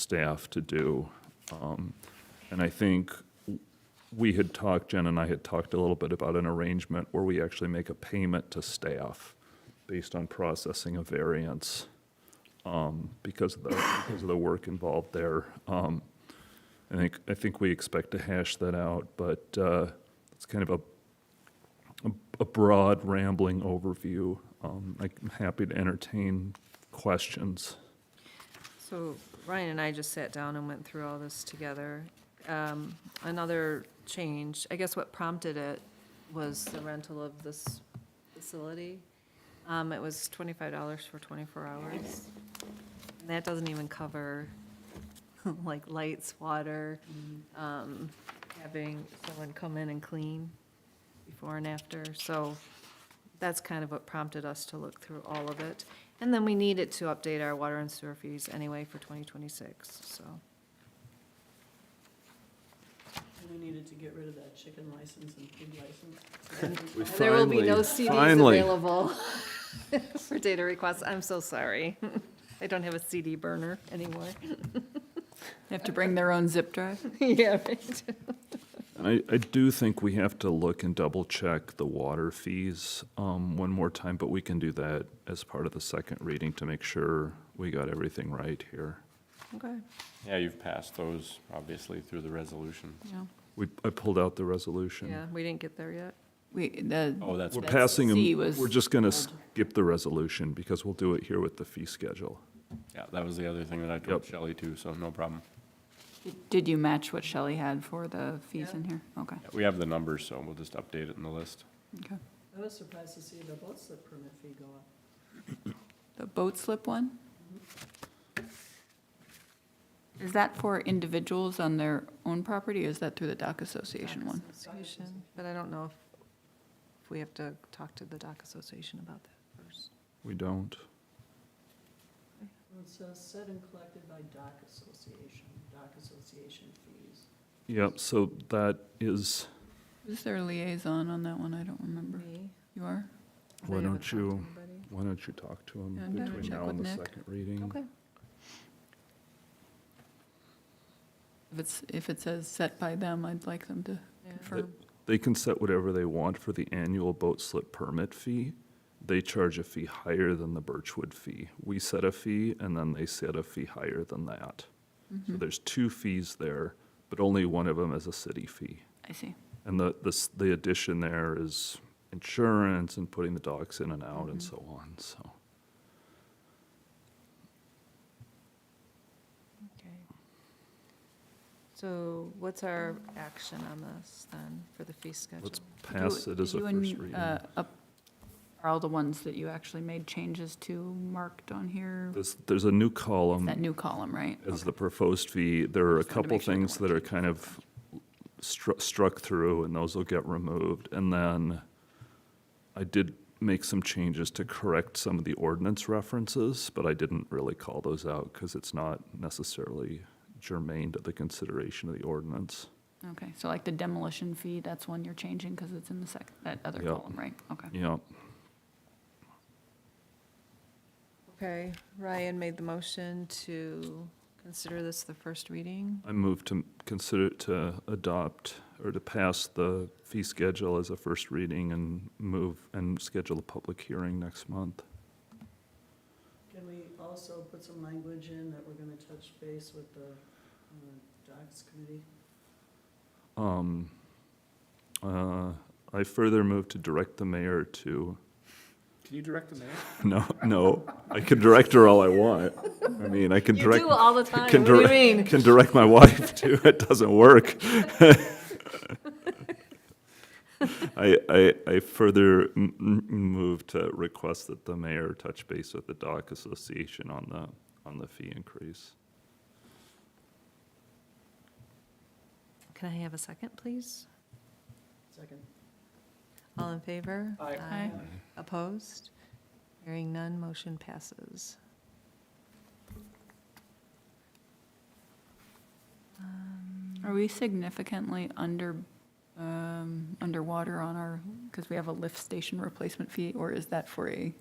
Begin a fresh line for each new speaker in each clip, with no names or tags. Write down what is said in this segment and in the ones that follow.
staff to do. Um, And I think we had talked, Jen and I had talked a little bit about an arrangement where we actually make a payment to staff based on processing a variance um, because of the, because of the work involved there. Um, I think, I think we expect to hash that out, but uh, it's kind of a, a- a broad rambling overview. Um, I'm happy to entertain questions.
So Ryan and I just sat down and went through all this together. Um, Another change, I guess what prompted it was the rental of this facility. Um, It was twenty-five dollars for twenty-four hours. And that doesn't even cover, like, lights, water, um, having someone come in and clean before and after. So that's kind of what prompted us to look through all of it. And then we need it to update our water and sewer fees anyway for 2026, so.
We needed to get rid of that chicken license and pig license.
We
There will be no CDs
Finally, finally.
available for data requests. I'm so sorry. I don't have a CD burner anymore.
They have to bring their own zip drive?
Yeah, right.
And I, I do think we have to look and double check the water fees um, one more time, but we can do that as part of the second reading to make sure we got everything right here.
Okay.
Yeah, you've passed those, obviously, through the resolution.
No.
We, I pulled out the resolution.
Yeah, we didn't get there yet.
We, the,
Oh, that's,
We're
That's-
passing,
C
them-
was
we're just going to skip the resolution because we'll do it here with the fee schedule.
yeah, that was the other thing that I told
Yep.
Shelley too, so no problem.
did you match what Shelley had for the fees in here? Okay,
Yeah, We have the numbers, so we'll just update it in the list.
okay.
I was surprised to see the boat slip permit fee go up.
The boat slip one? Is that for individuals on their own property, or is that through the dock association one?
Association, But I don't know if, if we have to talk to the dock association about that first.
We don't.
Well, It says set and collected by dock association, dock association fees.
Yep, so that is,
Who's their liaison on that one? I don't remember.
Me?
You are?
Why
I haven't
don't
talked to
you-
anybody.
why don't you talk to
Yeah,
him
I'm gonna
between
check
now
with
and the
Nick.
second reading?
Okay.
If it's, if it says set by them, I'd like them to
Yeah.
confirm.
They can set whatever they want for the annual boat slip permit fee. They charge a fee higher than the Birchwood fee. We set a fee, and then they set a fee higher than that.
Mm-hmm.
So there's two fees there, but only one of them is a city fee.
I see.
And the, the, s- the addition there is insurance and putting the dogs in and out
Mm-hmm.
and so on, so.
Okay. So what's our action on this then for the fee schedule?
Let's pass
Do-
it as a
did you and,
first reading.
uh, up- Are all the ones that you actually made changes to marked on here?
There's, there's a new column.
That new column, right?
as the proposed fee, there are a
Just wanted to
couple
make sure there
things that
weren't
are kind of stru- struck through, and those will get removed. And then I did make some changes to correct some of the ordinance references, but I didn't really call those out because it's not necessarily germane to the consideration of the ordinance.
Okay, so like the demolition fee, that's one you're changing because it's in the sec, that other
Yeah.
column, right? Okay.
Yeah,
Okay, Ryan made the motion to consider this the first reading.
I move to consider to adopt or to pass the fee schedule as a first reading and move and schedule a public hearing next month.
Can we also put some language in that we're gonna touch base with the uh, docks committee?
Um, uh, I further move to direct the mayor to,
Can you direct the mayor?
no, no, I can direct her all I want. I mean, I can direct,
all the
can direct, can direct my wife too, it doesn't work. I, I, I further m- m- move to request that the mayor touch base with the dock association on the, on the fee increase.
Can I have a second, please?
Second.
All in favor?
Aye.
Aye.
Opposed? Hearing none, motion passes. Um,
Are we significantly under, um, underwater on our, because we have a lift station replacement fee? Or is that for a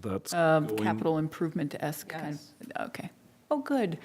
That's
um,
going-
capital improvement-esque kind of? Okay. Oh, good.